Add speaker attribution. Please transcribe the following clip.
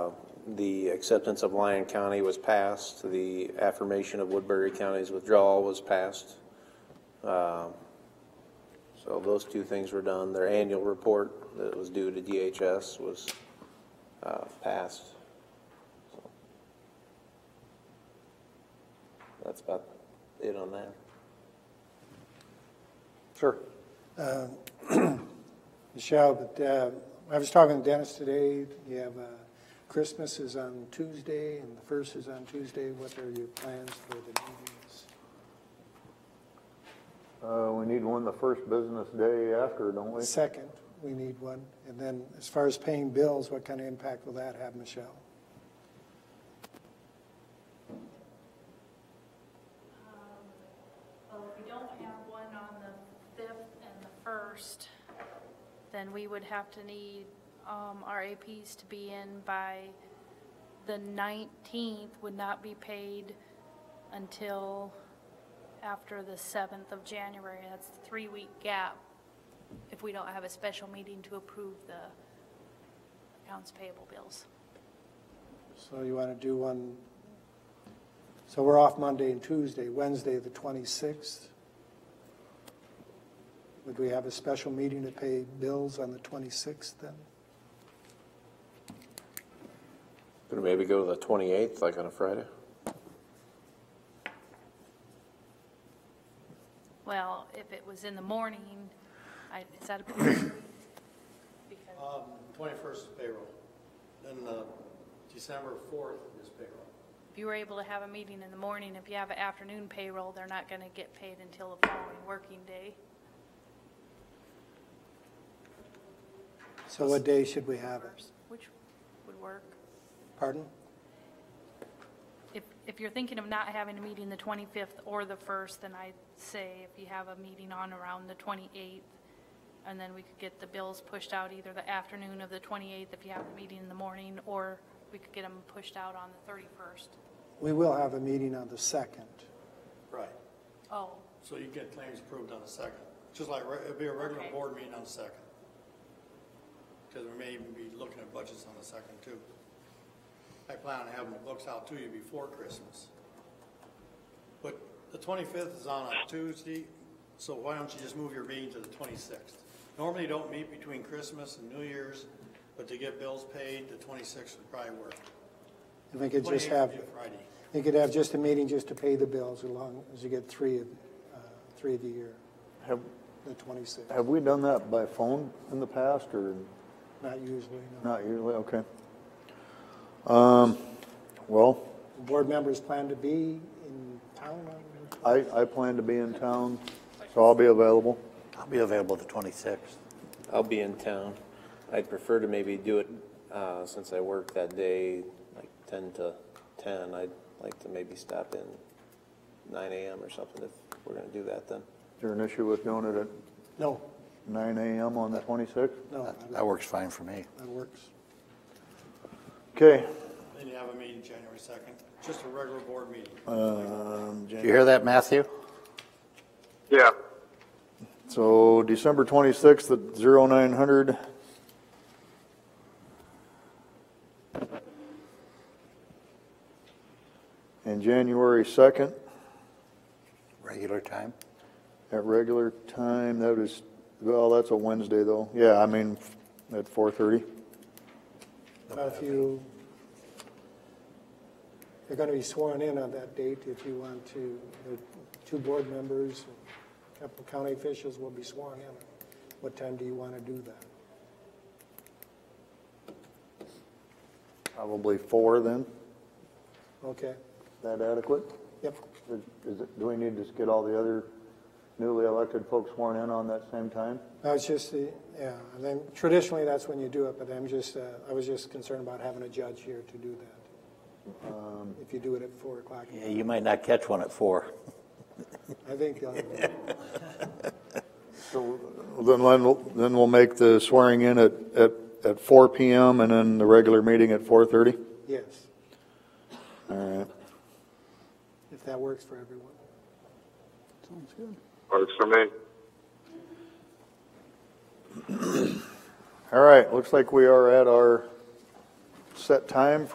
Speaker 1: the acceptance of Lyon County was passed, the affirmation of Woodbury County's withdrawal was passed. Um, So those two things were done. Their annual report that was due to DHS was uh, passed. So That's about it on that.
Speaker 2: Sure.
Speaker 3: Michelle, but uh, I was talking to Dennis today, you have, uh, Christmas is on Tuesday, and the first is on Tuesday, what are your plans for the meetings?
Speaker 2: Uh, we need one the first business day after, don't we?
Speaker 3: The second, we need one, and then as far as paying bills, what kind of impact will that have, Michelle?
Speaker 4: Well, if we don't have one on the 5th and the 1st, then we would have to need um, our APs to be in by the 19th, would not be paid until after the 7th of January. That's a three-week gap if we don't have a special meeting to approve the accounts payable bills.
Speaker 3: So you want to do one, so we're off Monday and Tuesday, Wednesday, the 26th? Would we have a special meeting to pay bills on the 26th then?
Speaker 1: Could we maybe go to the 28th, like on a Friday?
Speaker 4: Well, if it was in the morning, I, is that a? because-
Speaker 5: Um, twenty-first is payroll, then, uh, December fourth is payroll.
Speaker 4: If you were able to have a meeting in the morning, if you have an afternoon payroll, they're not going to get paid until the following working day.
Speaker 3: So what day should we have it?
Speaker 4: Which would work.
Speaker 3: Pardon?
Speaker 4: If, if you're thinking of not having a meeting the 25th or the 1st, then I'd say if you have a meeting on around the 28th, and then we could get the bills pushed out either the afternoon of the 28th if you have a meeting in the morning, or we could get them pushed out on the 31st.
Speaker 3: We will have a meeting on the 2nd.
Speaker 5: Right.
Speaker 4: Oh,
Speaker 5: So you get claims approved on the second, just like, re- it'd be a regular
Speaker 4: Okay.
Speaker 5: board meeting on the second. Because we may even be looking at budgets on the second too. I plan on having the books out to you before Christmas. But the twenty-fifth is on a Tuesday, so why don't you just move your meeting to the twenty-sixth? Normally you don't meet between Christmas and New Year's, but to get bills paid, the twenty-sixth would probably work.
Speaker 3: If we could just
Speaker 5: 28th
Speaker 3: have,
Speaker 5: would be Friday.
Speaker 3: we could have just a meeting just to pay the bills as long as you get three, of uh, three of the year,
Speaker 2: Have,
Speaker 3: the 26th.
Speaker 2: have we done that by phone in the past or
Speaker 3: Not usually, no.
Speaker 2: not usually? Okay. Um, well,
Speaker 3: Board members plan to be in town on
Speaker 2: I, I plan to be in town, so I'll be available.
Speaker 6: I'll be available the 26th.
Speaker 1: I'll be in town. I'd prefer to maybe do it, uh, since I work that day, like ten to ten. I'd like to maybe stop in nine AM or something if we're gonna do that then.
Speaker 2: Is there an issue with doing it at
Speaker 3: No,
Speaker 2: nine AM on the twenty-sixth?
Speaker 3: no,
Speaker 6: That works fine for me.
Speaker 3: that works.
Speaker 2: Okay,
Speaker 5: Then you have a meeting January second, just a regular board meeting.
Speaker 3: Uh,
Speaker 2: um,
Speaker 6: Do
Speaker 2: Jan-
Speaker 6: you hear that, Matthew?
Speaker 7: Yeah,
Speaker 2: so December twenty-sixth at zero nine hundred. And January second
Speaker 6: Regular time?
Speaker 2: at regular time, that is, well, that's a Wednesday though. Yeah, I mean, at four-thirty.
Speaker 3: But if you, they're going to be sworn in on that date if you want to, the two board members, a couple county officials will be sworn in. What time do you want to do that?
Speaker 2: Probably four then,
Speaker 3: Okay,
Speaker 2: Is that adequate?
Speaker 3: yep,
Speaker 2: Is- is it- Do we need to just get all the other newly elected folks sworn in on that same time?
Speaker 3: No, it's just, the yeah, and then traditionally, that's when you do it, but I'm just, uh, I was just concerned about having a judge here to do that. If you do it at four o'clock,
Speaker 6: Um, Yeah, you might not catch one at four.
Speaker 3: I think uh, they'll,
Speaker 2: Then, we'll- then we'll make the swearing in at, at, at four PM and then the regular meeting at four thirty?
Speaker 3: yes,
Speaker 2: All right.
Speaker 3: if that works for everyone.
Speaker 2: Sounds good.
Speaker 7: works for me.
Speaker 2: All right, looks like we are at our set time